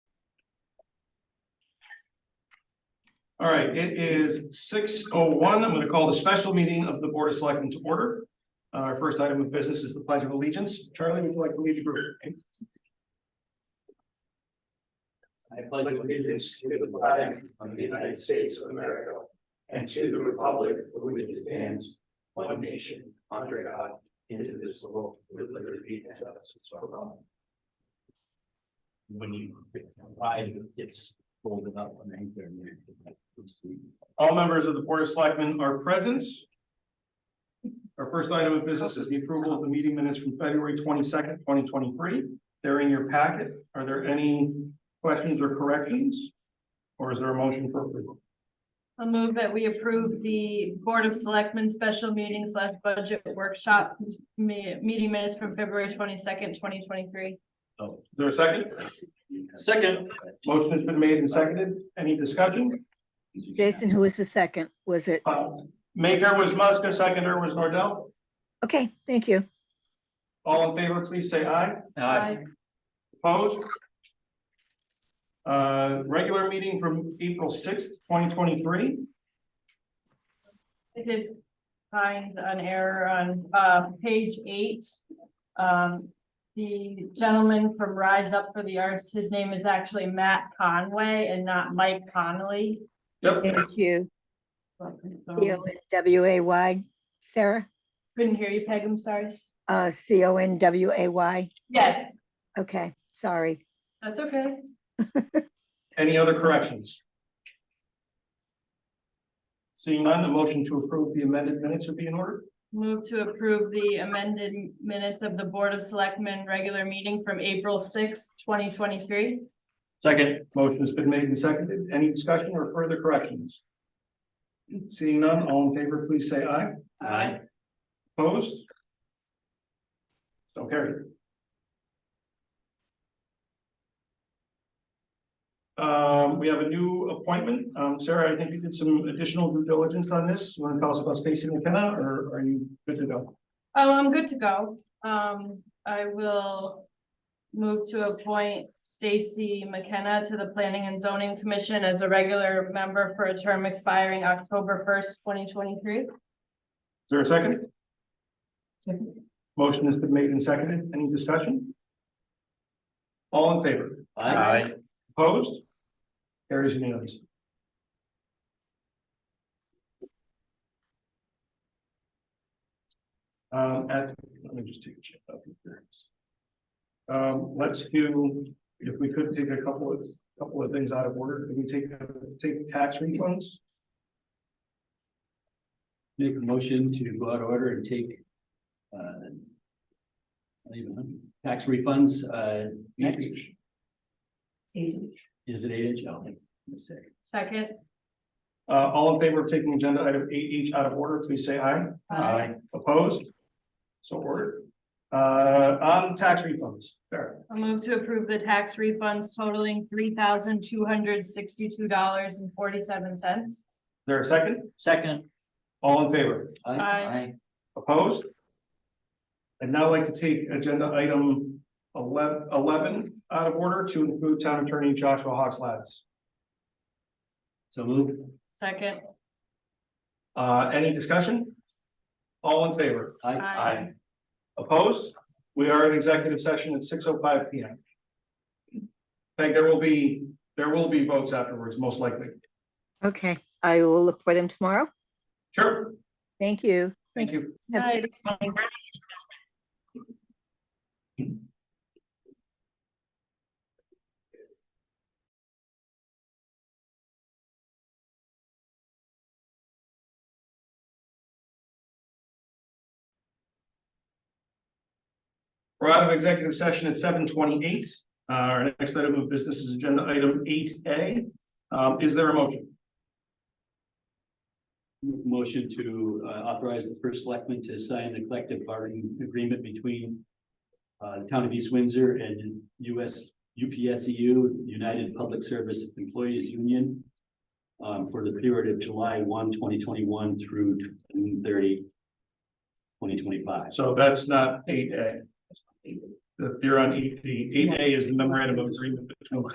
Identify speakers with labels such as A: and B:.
A: All right, it is six oh one. I'm gonna call the special meeting of the Board of Selectmen to order. Uh, Our first item of business is the pledge of allegiance. Charlie, would you like to lead the group?
B: I pledge allegiance to the flag of the United States of America and to the republic for which it stands, one nation, under God, indivisible, with liberty and justice for all. When you, why it's folded up on anchor.
A: All members of the Board of Selectmen are present. Our first item of business is the approval of the meeting minutes from February twenty-second, twenty twenty-three. They're in your packet. Are there any questions or corrections? Or is there a motion for approval?
C: A move that we approve the Board of Selectmen Special Meeting slash Budget Workshop me- meeting minutes from February twenty-second, twenty twenty-three.
A: Is there a second?
B: Second.
A: Motion has been made and seconded. Any discussion?
D: Jason, who was the second? Was it?
A: Uh, Maker was Muska, seconder was Nordell.
D: Okay, thank you.
A: All in favor, please say aye.
C: Aye.
A: Opposed? Uh, regular meeting from April sixth, twenty twenty-three.
C: I did find an error on, uh, page eight. Um, the gentleman from Rise Up for the Arts, his name is actually Matt Conway and not Mike Connolly.
A: Yep.
D: Thank you.
C: So,
D: C O N W A Y. Sarah,
C: Couldn't hear you, Peg, I'm sorry.
D: uh, C O N W A Y.
C: Yes,
D: Okay, sorry.
C: that's okay.
A: Any other corrections? Seeing none, the motion to approve the amended minutes would be in order.
C: Move to approve the amended minutes of the Board of Selectmen regular meeting from April sixth, twenty twenty-three.
A: Second. Motion has been made and seconded. Any discussion or further corrections? Seeing none, all in favor, please say aye.
B: Aye.
A: Opposed? So carried. Um, we have a new appointment. Um, Sarah, I think you did some additional due diligence on this. You Want to tell us about Stacy McKenna or are you good to go?
C: Oh, I'm good to go. Um, I will move to appoint Stacy McKenna to the Planning and Zoning Commission as a regular member for a term expiring October first, twenty twenty-three.
A: Is there a second? Motion has been made and seconded. Any discussion? All in favor?
B: Aye.
A: Opposed? Carries unanimous. Um, at, let me just take a check up here. Um, let's do, if we could take a couple of, couple of things out of order, can we take, take tax refunds?
E: Make a motion to go out of order and take. uh, not even a hundred, Tax refunds, uh. next- Is it eight inch? Oh, mistake.
C: Second.
A: Uh, all in favor of taking agenda item eight H out of order, please say aye. Opposed? So ordered. Uh, on tax refunds, Sarah.
C: I'll move to approve the tax refunds totaling three thousand two hundred sixty-two dollars and forty-seven cents.
A: Is there a second?
E: Second.
A: All in favor?
C: Aye.
A: Opposed? I'd now like to take agenda item 11 11 out of order to include town attorney Joshua Hoxlads.
E: So move.
C: Second.
A: Uh, any discussion? All in favor?
C: Aye.
A: Opposed? We are in executive session at six oh five P M. I think there will be, there will be votes afterwards, most likely.
D: Okay, I will look for them tomorrow.
A: Sure,
D: Thank you.
A: thank you.
D: Have
C: Bye.
D: a good evening.
A: We're out of executive session at seven twenty-eight. Uh, our next item of business is agenda item eight A. Um, is there a motion?
E: Motion to uh, authorize the first selectman to sign the collective bargaining agreement between. Uh, the town of East Windsor and US UPSEU, E United Public Service Employees Union. um, for the period of July 1, 2021 through June 30, 2025.
A: So that's not eight A. You're on eight D. Eight A is the memorandum of agreement between